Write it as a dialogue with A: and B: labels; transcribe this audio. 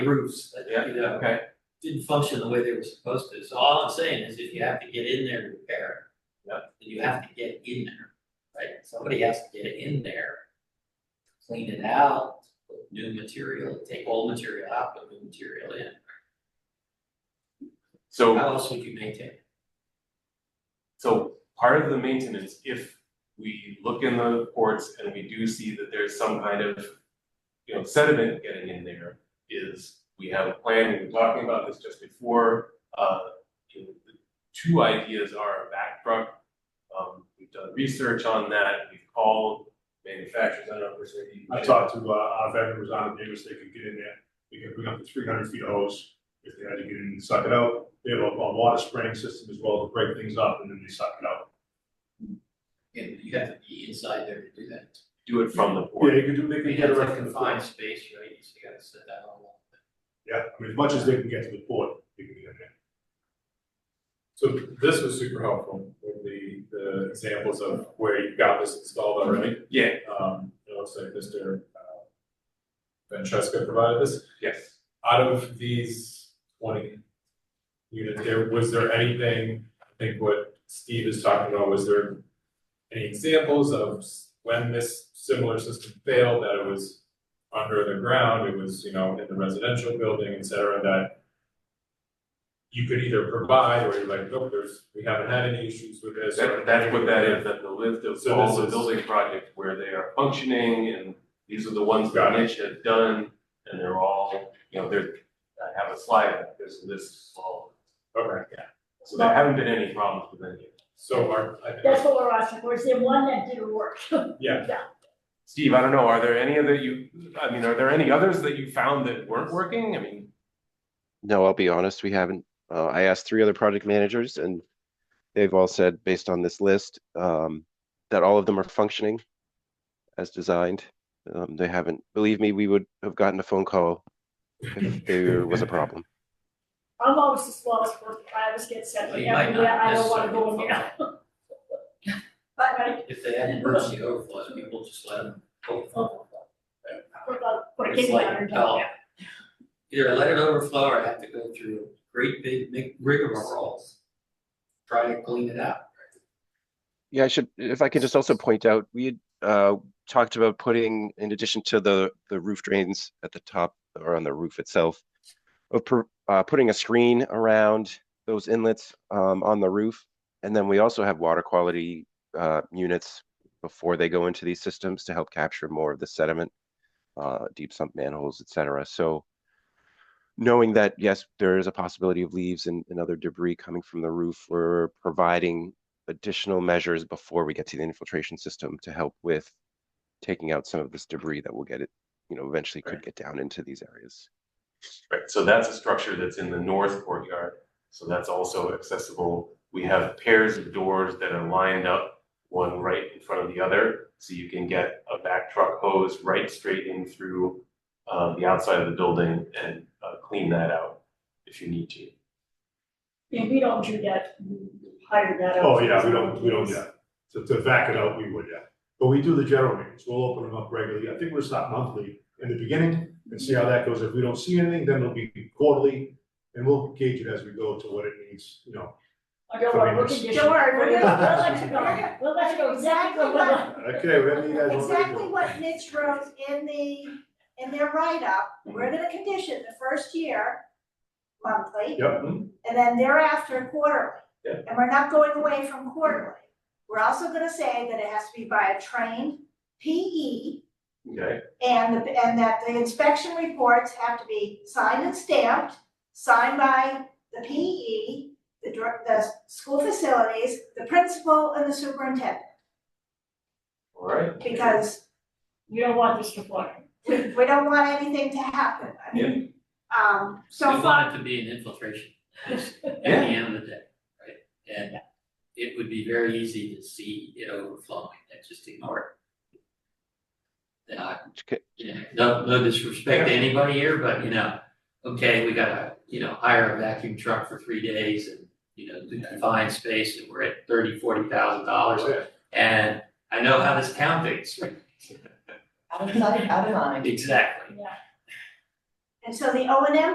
A: roofs that,
B: Yeah,
A: you know,
B: okay,
A: didn't function the way they were supposed to, so all I'm saying is if you have to get in there to repair.
B: Yeah.
A: Then you have to get in there, right, somebody has to get in there. Clean it out, put new material, take old material out, put new material in,
B: so,
A: how else would you maintain? it?
B: so part of the maintenance, if we look in the reports and we do see that there's some kind of, you know, sediment getting in there, is we have a plan, we were talking about this just before, uh, you know, the two ideas are a back truck. Um, we've done research on that, we've called manufacturers, I don't know if there's any.
C: I talked to uh, our vendors on it, neighbors, they could get in there, they could bring up the three hundred feet hose, if they had to get in and suck it out. They have a a water spraying system as well to break things up and then they suck it out.
A: And you have to be inside there to do that.
B: Do it from the
C: Yeah,
B: port,
C: they can do, they
A: You
C: can
A: have
C: get
A: to
C: around to the
A: confined
C: port.
A: space, right, so you gotta set that all up.
C: Yeah, I mean, as much as they can get to the port, they can get in there.
D: So this was super helpful with the, the examples of where you've got this installed already.
B: yeah,
D: Um, it looks like Mr. uh, Francesca provided this.
B: yes.
D: Out of these twenty units here, was there anything, I think what Steve is talking about, was there any examples of s- when this similar system failed, that it was under the ground, it was, you know, in the residential building, et cetera, that you could either provide, or you're like, nope, there's, we haven't had any issues with this. or-
B: That, that's what that is, that the list of
D: So
B: all
D: this
B: the
D: is-
B: building projects where they are functioning and these are the ones that
D: Got it.
B: Mitch had done. And they're all, you know, there's, I have a slide, there's a list of all,
D: Okay,
B: so there haven't been any problems with any of it.
D: so our, I-
E: That's what we're asking for, is the one that didn't work.
D: Yeah.
B: Steve, I don't know, are there any other you, I mean, are there any others that you found that weren't working? I mean,
F: No, I'll be honest, we haven't. Uh, I asked three other project managers and they've all said, based on this list, um, that all of them are functioning as designed. Um, they haven't, believe me, we would have gotten a phone call if there was a problem.
E: I'm always the smallest person, I always get sent
A: Well, you might
E: everywhere,
A: not
E: I don't wanna go in
A: necessarily
E: there. But I,
A: If they had emergency overflows, people just let them overflow.
E: oh, put a, put a
A: It's
E: kidney on her
A: like,
E: down
A: no.
E: there.
A: Either let it overflow or have to go through great big mi- rigmarole. Try to clean it out.
F: Yeah, I should, if I could just also point out, we had, uh, talked about putting, in addition to the, the roof drains at the top or on the roof itself, of, pro- uh, putting a screen around those inlets, um, on the roof. And then we also have water quality, uh, units before they go into these systems to help capture more of the sediment, uh, deep sump manholes, et cetera. So knowing that, yes, there is a possibility of leaves and, and other debris coming from the roof, we're providing additional measures before we get to the infiltration system to help with taking out some of this debris that will get it, you know, eventually could
B: Right.
F: get down into these areas.
B: right, so that's a structure that's in the north courtyard, so that's also accessible. We have pairs of doors that are lined up, one right in front of the other, so you can get a back truck hose right straight in through uh, the outside of the building and uh, clean that out if you need to.
E: Yeah, we don't do that, we hire that out.
C: Oh, yeah, we don't, we don't, yeah, to, to vac it out, we would, yeah. But we do the general maintenance, we'll open them up regularly, I think we'll stop monthly in the beginning and see how that goes. If we don't see anything, then it'll be quarterly, and we'll gauge it as we go to what it needs, you know.
E: I don't want, we're
C: Don't
E: conditioned.
G: worry, we're
E: We'll
G: gonna-
E: let you go, we'll let you go exactly what.
C: Okay, whatever you guys want me to do.
G: Exactly what Mitch wrote in the, in their write-up, we're gonna condition the first year monthly,
C: Yep, Mm-hmm.
G: and then thereafter quarterly.
B: Yeah.
G: And we're not going away from quarterly. We're also gonna say that it has to be by a trained PE,
B: Okay,
G: and, the- and that the inspection reports have to be signed and stamped, signed by the PE, the, dir- the school facilities, the principal, and the superintendent,
B: all right.
G: because
E: You don't want this to fly.
G: we, we don't want anything to happen, I mean, um, so
A: We
G: far,
A: want it to be an infiltration at the end of the day, right? And it would be very easy to see it overflowing and just ignore it. Then I
F: Okay,
A: you know, no, no disrespect to anybody here, but you know, okay, we gotta, you know, hire a vacuum truck for three days and, you know, do confined space and we're at thirty, forty thousand dollars. And I know how this town thinks.
H: Out of sight, out of mind.
A: Exactly.
G: And so the O and M